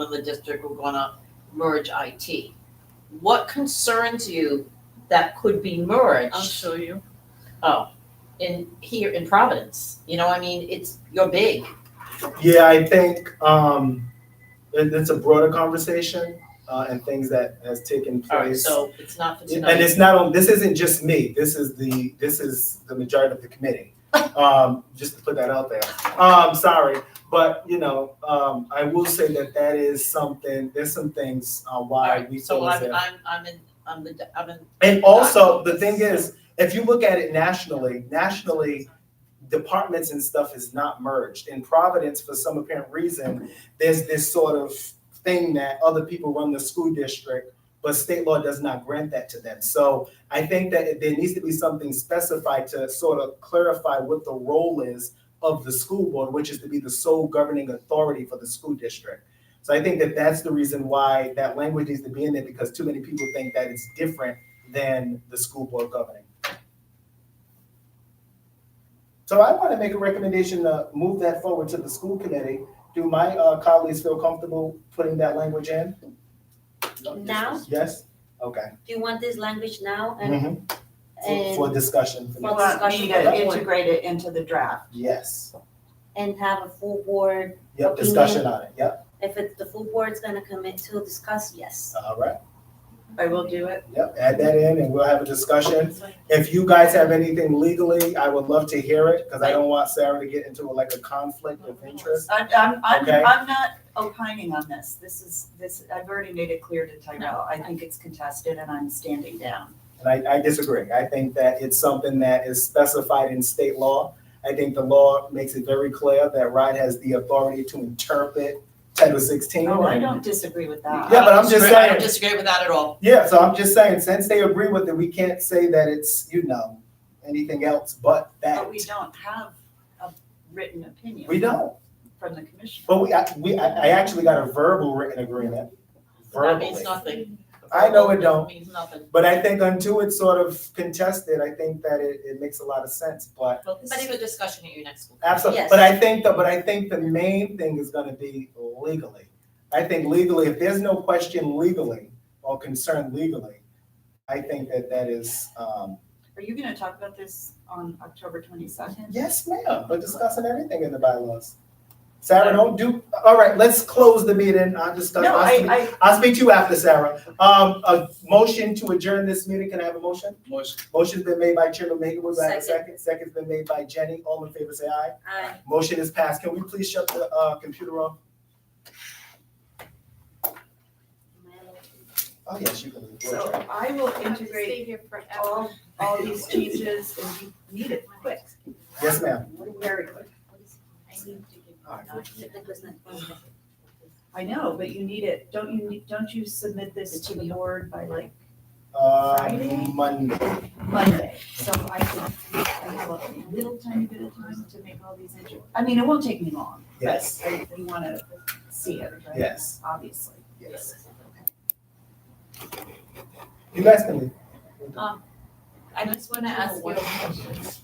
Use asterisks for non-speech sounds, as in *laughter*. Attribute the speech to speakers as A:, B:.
A: of the district, we're gonna merge IT. What concerns you that could be merged?
B: I'll show you.
A: Oh, in here in Providence, you know, I mean, it's, you're big.
C: Yeah, I think um, it, it's a broader conversation uh, and things that has taken
A: All right,
C: place.
A: so it's not for
C: Oh, and
A: tonight.
C: it's not on. This isn't just me. This is the this is the majority of the
A: *laughs*
C: committee. Um, just to put that out there. Um, sorry, but you know, um, I will say that that is something. There's some things uh,
A: All
C: why we
A: right, so
C: feel as
A: I'm,
C: if-
A: I'm, I'm in, I'm the, I'm in,
C: And also, the thing is, if you look at it nationally, nationally, departments and stuff is not merged. In Providence, for some apparent reason, there's this sort of thing that other people run the school district, but state law does not grant that to them. So I think that there needs to be something specified to sort of clarify what the role is of the school board, which is to be the sole governing authority for the school district. So I think that that's the reason why that language needs to be in there, because too many people think that it's different than the school board governing. So I want to make a recommendation to move that forward to the school committee. Do my uh, colleagues feel comfortable putting that language in?
D: Now?
C: Yes? Okay.
D: Do you want this language now and,
C: Mhm. For- For
D: and,
C: discussion. for
D: Well,
E: Well,
C: next-
E: I mean, you gotta integrate it into the draft.
C: Yes.
D: and have a full board?
C: Yep,
D: Opinion.
C: discussion on it. Yep,
D: If it, the full board's gonna commit to discuss, yes.
C: all right.
E: I will do it.
C: Yep, add that in and we'll have a discussion. If you guys have anything legally, I would love to hear it because I don't want Sarah to get into like a conflict of interest.
E: I'm, I'm, I'm,
C: Okay.
E: I'm not opining on this. This is, this, I've already made it clear to Tyrell. I think it's contested and I'm standing down.
C: And I, I disagree. I think that it's something that is specified in state law. I think the law makes it very clear that RIDE has the authority to interpret Title 16.
E: Oh, I don't disagree with that.
C: Yeah, but I'm just
A: I don't
C: saying-
A: disagree with that at all.
C: Yeah, so I'm just saying, since they agree with it, we can't say that it's, you know, anything else but that.
E: But we don't have a written opinion.
C: We don't.
E: From the commission.
C: But we, I, we, I I actually got a verbal written agreement.
A: That
C: Verbally.
A: means nothing.
C: I know it don't.
A: Means nothing.
C: But I think until it's sort of contested, I think that it, it makes a lot of sense, but
A: Well, but even discussion at your next school.
C: absolutely,
D: Yes.
C: but I think the, but I think the main thing is gonna be legally. I think legally, if there's no question legally or concern legally, I think that that is, um,
E: Are you gonna talk about this on October twenty-second?
C: yes, ma'am, we're discussing everything in the bylaws. Sarah, don't do, all right, let's close the meeting, I'll discuss,
E: No,
C: I'll
E: I,
C: speak,
E: I,
C: I'll speak to you after, Sarah. Um, a motion to adjourn this meeting, can I have a motion?
F: Motion.
C: Motion's been made by Chairman Maker, do I have a
D: Second.
C: second? Second's been made by Jenny, all in favor say aye.
D: I
C: Motion is passed, can we please shut the, uh, computer off? Oh, yes, you can. leave. We'll
E: so
C: try.
E: I will integrate all, all these changes and we need it quick,
C: Yes, ma'am.
E: very quick.
C: All right.
E: I know, but you need it, don't you, need- don't you submit this to the board by like
C: Uh,
E: Friday?
C: Monday,
E: Monday? So I can, I have a little tiny bit of time to make all these inter, I mean, it won't take me long, but
C: yes,
E: I, we wanna see it, right?
C: Yes.
E: Obviously.
C: yes. You guys can leave.
E: Uh,
B: I just wanna ask you a question.